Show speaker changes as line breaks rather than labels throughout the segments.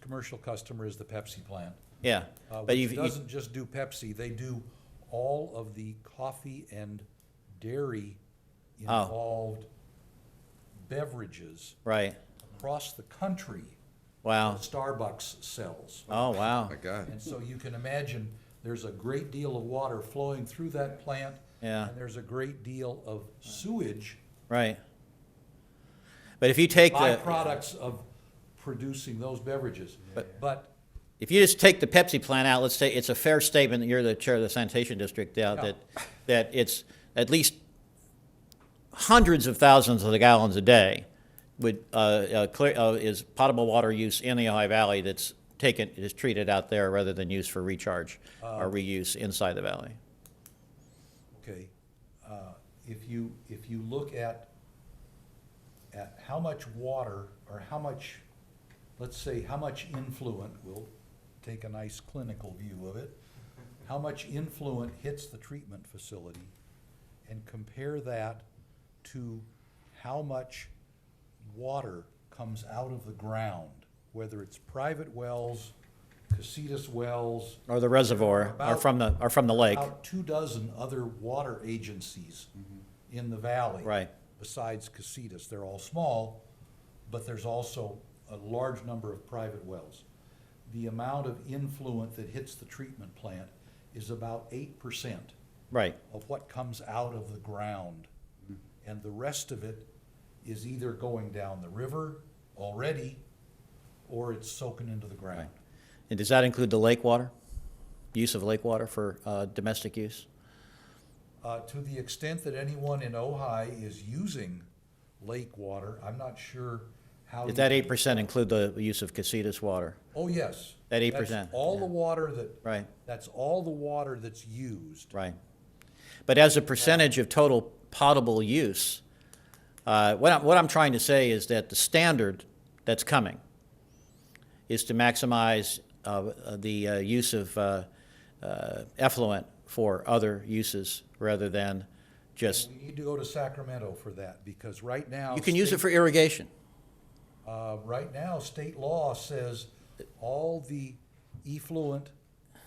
commercial customer is the Pepsi plant.
Yeah,
uh,
but
Which
you've, you,
doesn't just do Pepsi, they do all of the coffee and dairy
Oh.
involved beverages
right,
across the country.
wow,
Starbucks sells.
oh, wow,
My God.
And so you can imagine, there's a great deal of water flowing through that plant.
Yeah.
And there's a great deal of sewage,
right. But if you take the,
byproducts of producing those beverages. But
if you just take the Pepsi plant out, let's say, it's a fair statement, that you're the chair of the sanitation district, now,
Yeah.
that, that it's at least hundreds of thousands of gallons a day would, uh, uh, clear, uh, is potable water use in the Ojai Valley that's taken, is treated out there rather than used for recharge
Uh,
or reuse inside the valley.
Okay, uh, if you, if you look at, at how much water, or how much, let's say, how much influent, we'll take a nice clinical view of it, how much influent hits the treatment facility, and compare that to how much water comes out of the ground, whether it's private wells, casitas wells,
Or the reservoir, or
About-
from the, or from the lake,
about two dozen other water agencies in the valley.
Right.
Besides Casitas, they're all small, but there's also a large number of private wells. The amount of influent that hits the treatment plant is about eight percent
right.
of what comes out of the ground. And the rest of it is either going down the river already, or it's soaking into the ground.
And does that include the lake water? Use of lake water for uh, domestic use?
Uh, to the extent that anyone in Ojai is using lake water, I'm not sure how.
Does that
you-
eight percent include the use of casitas water?
Oh, yes.
That
That's
8%,
All
yeah.
the water that.
Right.
That's all the water that's used.
Right. But as a percentage of total potable use, uh, what I'm, what I'm trying to say is that the standard that's coming is to maximize uh, the uh, use of uh, uh, effluent for other uses rather than just,
We need to go to Sacramento for that, because right now.
you can use it
state-
for irrigation.
Uh, right now, state law says all the effluent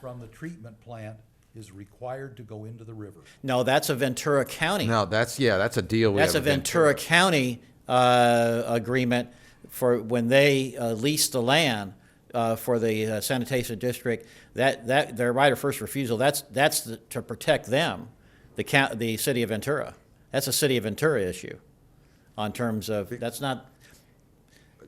from the treatment plant is required to go into the river.
No, that's a Ventura County.
No, that's, yeah, that's a deal we have.
That's a
with them.
Ventura County uh, agreement for when they uh, leased the land uh, for the uh, sanitation district. That, that, their right of first refusal, that's, that's the- to protect them, the county, the city of Ventura. That's a city of Ventura issue on terms of, that's not,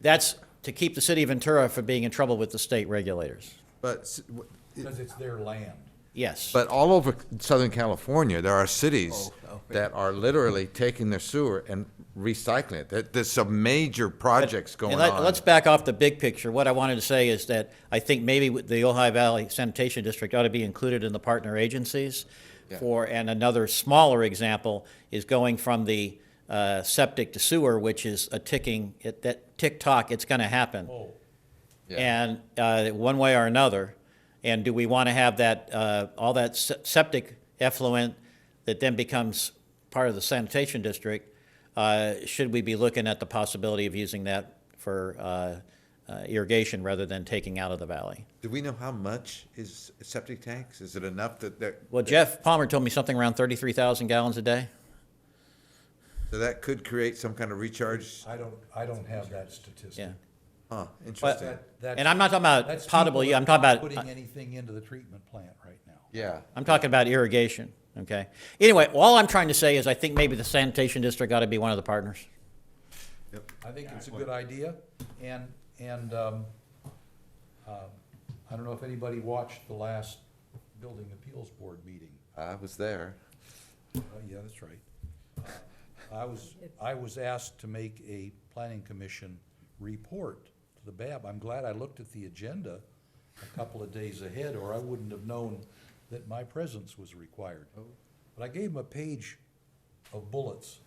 that's to keep the city of Ventura from being in trouble with the state regulators.
But, s- w-
Because it's their land.
Yes.
but all over Southern California, there are cities
Oh,
that are literally taking their sewer and recycling it. There- There's some major projects going
And
on.
let- Let's back off the big picture. What I wanted to say is that I think maybe with the Ojai Valley Sanitation District ought to be included in the partner agencies.
Yeah.
For, and another smaller example is going from the uh, septic to sewer, which is a ticking, it- that tick tock, it's going to happen.
Oh,
And uh, one way or another, and do we want to have that, uh, all that se- septic effluent that then becomes part of the sanitation district? uh, Should we be looking at the possibility of using that for uh, uh, irrigation rather than taking out of the valley?
Do we know how much is septic tanks? Is it enough that, that,
Well, Jeff Palmer told me something around 33,000 gallons a day.
so that could create some kind of recharge?
I don't, I don't have that statistic.
Yeah.
Huh, interesting.
That- that's-
And I'm not talking about
that's
potable,
people
yeah, I'm
that are
talking
not
about- uh,
Putting anything into the treatment plant right now.
Yeah.
I'm talking about irrigation, okay? Anyway, all I'm trying to say is I think maybe the sanitation district ought to be one of the partners.
I think it's a good idea, and, and, um, um, I don't know if anybody watched the last Building Appeals Board meeting.
I was there.
Uh, yeah, that's right. Uh, I was, I was asked to make a planning commission report to the BAB. I'm glad I looked at the agenda a couple of days ahead, or I wouldn't have known that my presence was required. But I gave them a page of bullets.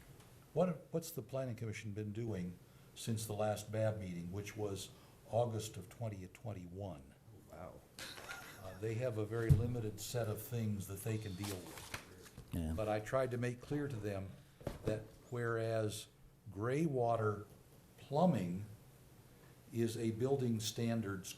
What, what's the planning commission been doing since the last BAB meeting, which was August of twenty twenty-one? Wow. Uh, they have a very limited set of things that they can deal with.
Yeah.
But I tried to make clear to them that whereas gray water plumbing is a building standards